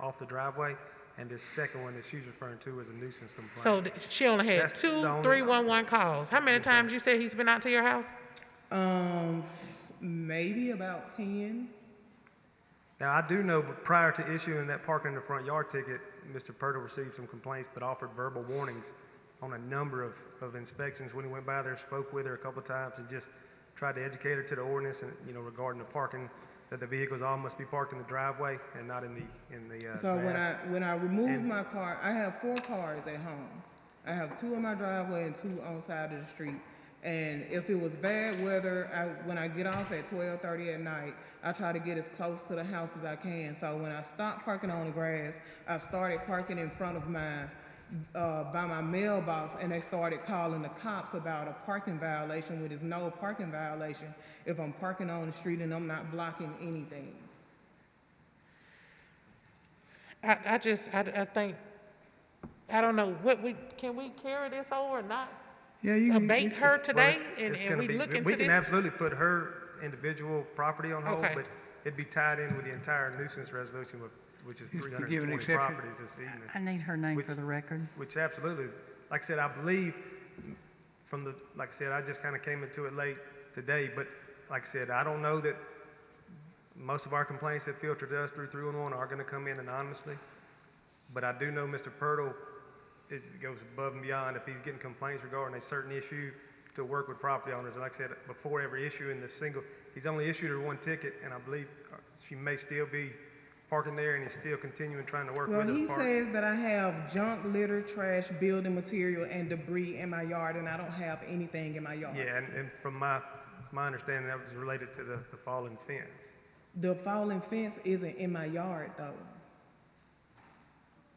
off the driveway, and this second one that she's referring to is a nuisance complaint. So th- she only had That's the two only- 311 calls. How many times you said he's been out to your house? Um, maybe about ten. Now, I do know, but prior to issuing that parking in the front yard ticket, Mr. Purtle received some complaints, but offered verbal warnings on a number of, of inspections when he went by there, spoke with her a couple times, and just tried to educate her to the ordinance and, you know, regarding the parking, that the vehicles all must be parked in the driveway and not in the, in the, uh, So when I, grass. when I remove And- my car, I have four cars at home. I have two in my driveway and two on side of the street. And if it was bad weather, I, when I get off at twelve thirty at night, I try to get as close to the house as I can. So when I stopped parking on the grass, I started parking in front of mine, uh, by my mailbox, and they started calling the cops about a parking violation, which is no parking violation if I'm parking on the street and I'm not blocking anything. I, I just, I, I think, I don't know, what we, can we carry this over or not? Yeah, you can- abate you- her it's- today well, and- it's and gonna we be- look We into can this? absolutely put her individual property on hold, Okay. but it'd be tied in with the entire nuisance resolution, with- which is Yes, three we hundred give an and twenty exception. properties this evening. I need her name for Which- the record. Which absolutely, like I said, I believe from the, like I said, I just kind of came into it late today, but like I said, I don't know that most of our complaints that filter to us through 311 are going to come in anonymously, but I do know Mr. Purtle, it goes above and beyond if he's getting complaints regarding a certain issue to work with property owners. And like I said, before every issue in the single, he's only issued her one ticket, and I believe uh, she may still be parking there, and he's still continuing trying to work with Well, her he to park. says that I have junk, litter, trash, building material, and debris in my yard, and I don't have anything in my yard. Yeah, and, and from my, my understanding, that was related to the, the fallen fence. The fallen fence isn't in my yard, though.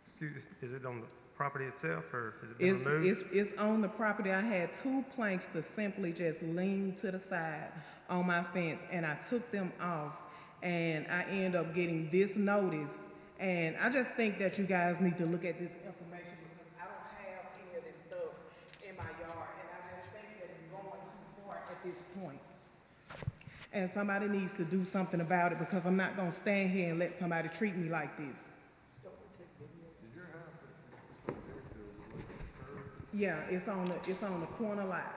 Excuse, is it on the property itself, or has it been It's, removed? it's, it's on the property. I had two planks to simply just lean to the side on my fence, and I took them off, and I end up getting this notice. And I just think that you guys need to look at this information because I don't have any of this stuff in my yard, and I just think that it's going too far at this point. And somebody needs to do something about it because I'm not gonna stand here and let somebody treat me like this. Yeah, it's on the, it's on the corner lot.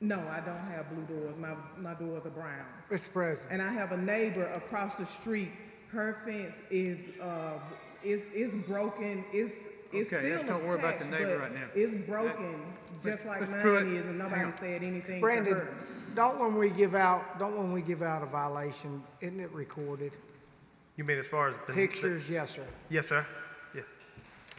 No, I don't have blue doors. My, my doors are brown. Mr. President, And I have a neighbor across the street. Her fence is, uh, is, is broken. It's, it's still Okay, let's attached, don't worry about the neighbor but right now. It's broken, just like Mr. Pruitt, mine is, and hang nobody on. said anything to Brandon, her. don't when we give out, don't when we give out a violation, isn't it recorded? You mean as far as the? the- Pictures, yes, sir. Yes, sir. Yeah.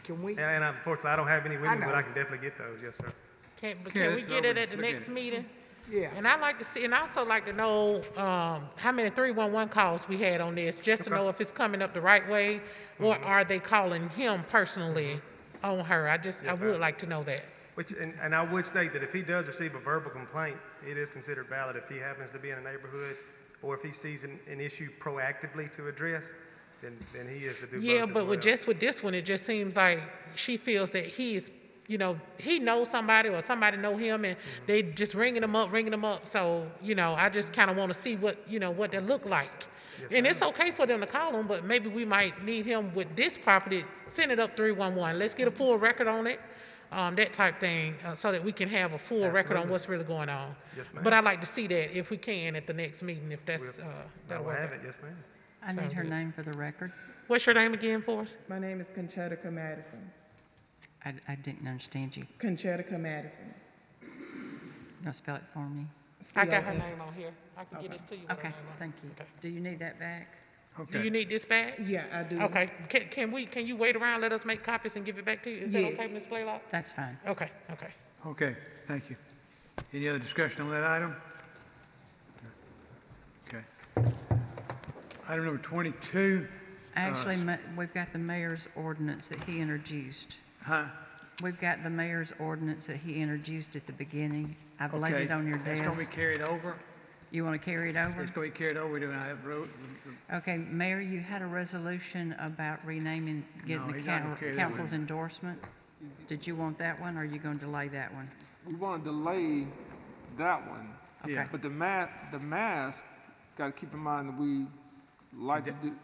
Can we, And, and unfortunately, I don't have any with me, but know. I can definitely get those, yes, sir. Can, but Okay, can we let's get go it over at the and look next at it. meeting? yeah, And I'd like to see, and I also like to know, um, how many three-one-one calls we had on this, just to know if it's coming up the right way, or Mm-hmm. are they calling him personally on her? I just, I would like to know that. Which, and, and I would state that if he does receive a verbal complaint, it is considered valid if he happens to be in a neighborhood, or if he sees an, an issue proactively to address, then, then he is to do both Yeah, as but with well. just with this one, it just seems like she feels that he's, you know, he knows somebody or somebody know him, and Mm-hmm. they just ringing him up, ringing him up. So you know, I just kind of want to see what you know what they look like. and it's okay for them to call him, but maybe we might need him with this property. Send it up three one one. Let's Mm-hmm. get a full record on it. Um, that type thing, uh, so that we can have a full record on what's really going on. Yes, ma'am. But I'd like to see that if we can at the next meeting, if that's, uh, I that'll will work have out. it, yes, ma'am. I need her name for the record. What's your name again for us? My name is Conchetica Madison. I, I didn't understand you. Conchetica Madison. You'll spell it for me? I got her C O N. name on here. I can get this to you. with her Okay, name on it. thank you. Okay. Do you need that back? Do you okay. need this back? Yeah, I do. Okay, can, can we, can you wait around, let us make copies and give it back to you? Is that Yes. okay, Ms. Blaylock? That's fine. Okay, okay. Okay, thank you. Any other discussion on that item? Okay. Item number 22, Actually, ma- we've got the mayor's ordinance that he introduced. huh? We've got the mayor's ordinance that he introduced at the beginning. I've laid Okay, it on your It's going to desk. be carried over. You want to carry it over? It's going to be carried over. Do I have road? Okay, Mayor, you had a resolution about renaming, getting No, the he's not gonna coun- carry that council's one. endorsement. Did you want that one, or are you going to delay that one? We want to delay that one. Yeah. Okay. But the mask, the mask, got to keep in mind that we like to do,